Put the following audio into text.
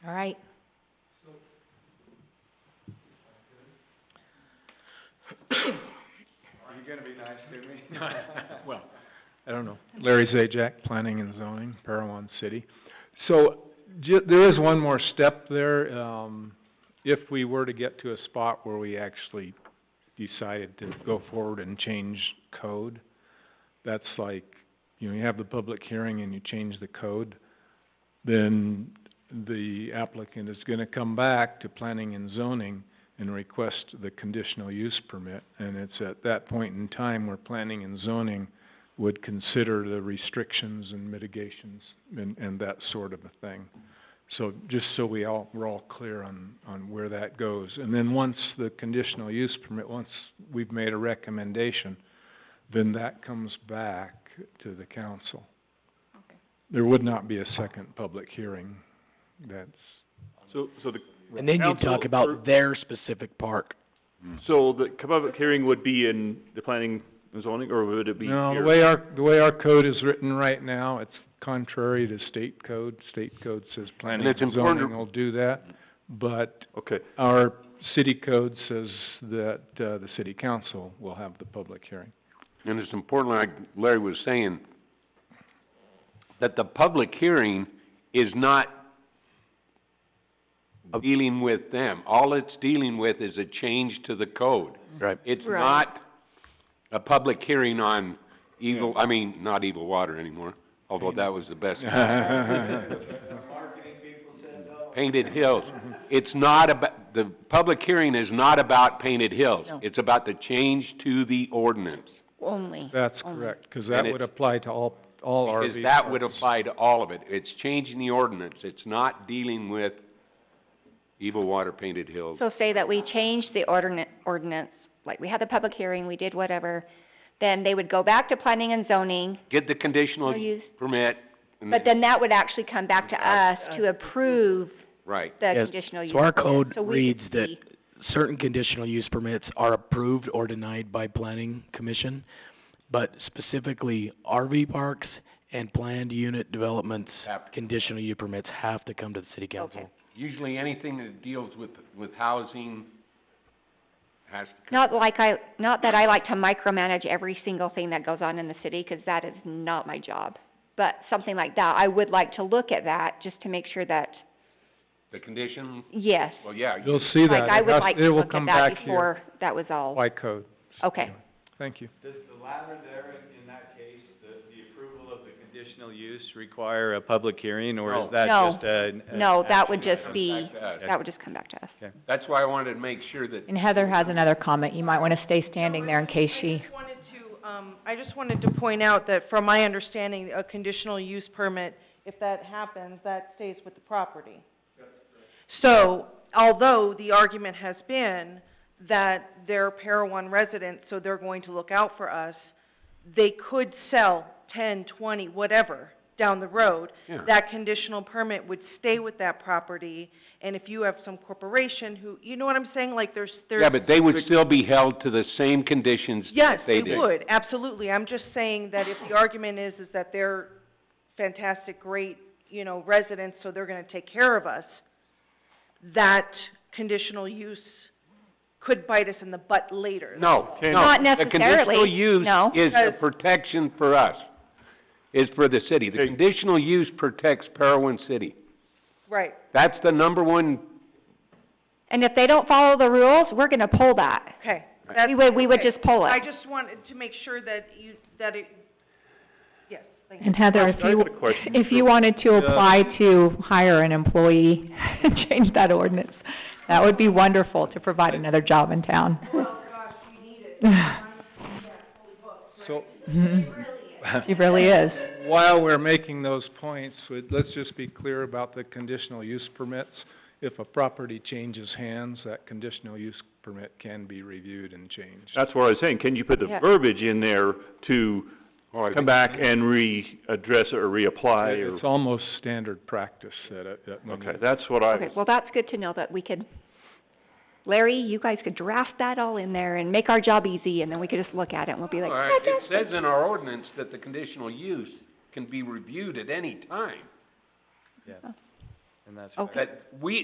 All right. You're gonna be nice to me. Well, I don't know. Larry Zajac, Planning and Zoning, Parowan City. So, ju- there is one more step there, um, if we were to get to a spot where we actually decided to go forward and change code, that's like, you know, you have the public hearing and you change the code, then the applicant is gonna come back to planning and zoning and request the conditional use permit. And it's at that point in time where planning and zoning would consider the restrictions and mitigations and, and that sort of a thing. So just so we all, we're all clear on, on where that goes. And then once the conditional use permit, once we've made a recommendation, then that comes back to the council. Okay. There would not be a second public hearing. That's, So, so the, And then you Council talk about appro- their specific park. so the public hearing would be in the planning and zoning, or would it be here? no, the way our, the way our code is written right now, it's contrary to state code. State code says planning it's and important to- zoning will do that. But Okay, our city code says that, uh, the city council will have the public hearing. And it's important, like Larry was saying, that the public hearing is not dealing with them. All it's dealing with is a change to the code. Right. It's Right. not a public hearing on evil, I mean, not evil water anymore, although that was the best. Painted Hills. It's not about, the public hearing is not about Painted Hills. No. It's about the change to the ordinance. Only. That's Only. correct, 'cause that it- would apply to all, all RV Because that would parks. apply to all of it. It's changing the ordinance. It's not dealing with evil water painted hills. So say that we changed the ordinance, ordinance, like we had the public hearing, we did whatever, then they would go back to planning and zoning, Get the conditional We'll use- permit and but then then, that would actually come back to us to approve right. the Yes. conditional use. So our permit. code So we reads could that see- certain conditional use permits are approved or denied by planning commission, but specifically RV parks and planned unit developments, Have to. conditional use permits have to come to the city council. Okay. Usually anything that deals with, with housing has to come. Not like I, not that I like to micromanage every single thing that goes on in the city, 'cause that is not my job. But something like that, I would like to look at that, just to make sure that, The condition, yes. well, yeah, You'll see that. Like, I It would has- like it to will look at come that back here before that was all. By code. Okay. Thank you. Does the latter there, in that case, the, the approval of the conditional use require a public hearing, or No. is that No. just a? No, that would it just comes be, back to us. that would just come back to us. That's why I wanted to make sure that And Heather has another comment. You might wanna stay standing there in case I she, just wanted to, um, I just wanted to point out that from my understanding, a conditional use permit, if that happens, that stays with the property. So, although the argument has been that they're Parowan residents, so they're going to look out for us, they could sell ten, twenty, whatever, down the road. Yeah. That conditional permit would stay with that property, and if you have some corporation who, you know what I'm saying, like there's, there's Yeah, but they would still be held to the same conditions Yes, that they did. would, absolutely. I'm just saying that if the argument is, is that they're fantastic, great, you know, residents, so they're gonna take care of us, that conditional use could bite us in the butt later. No, no. Not The conditional necessarily, use no. is a Because- protection for us, is for the city. The Hey. conditional use protects Parowan City. Right, That's the number one, And if they don't follow the rules, we're gonna pull that. okay. We would, we would okay. just pull I it. just wanted to make sure that you, that it, yes, thank you. and Heather, if I've you, got a question if for- you wanted to apply to hire an employee, change that ordinance. That would be wonderful to provide another job in town. So, She really is. while we're making those points, we- let's just be clear about the conditional use permits. If a property changes hands, that conditional use permit can be reviewed and changed. that's what I was saying, can you put the Yeah. verbiage in there to oh, I come think- back and readdress it or reapply or? It's almost standard practice that, it- that when Okay, you- that's what I Okay, was, well, that's good to know that we could, Larry, you guys could draft that all in there and make our job easy, and then we could just look at it and we'll be All like, right, it "Fantastic." says in our ordinance that the conditional use can be reviewed at any time. and that's. Okay. That we,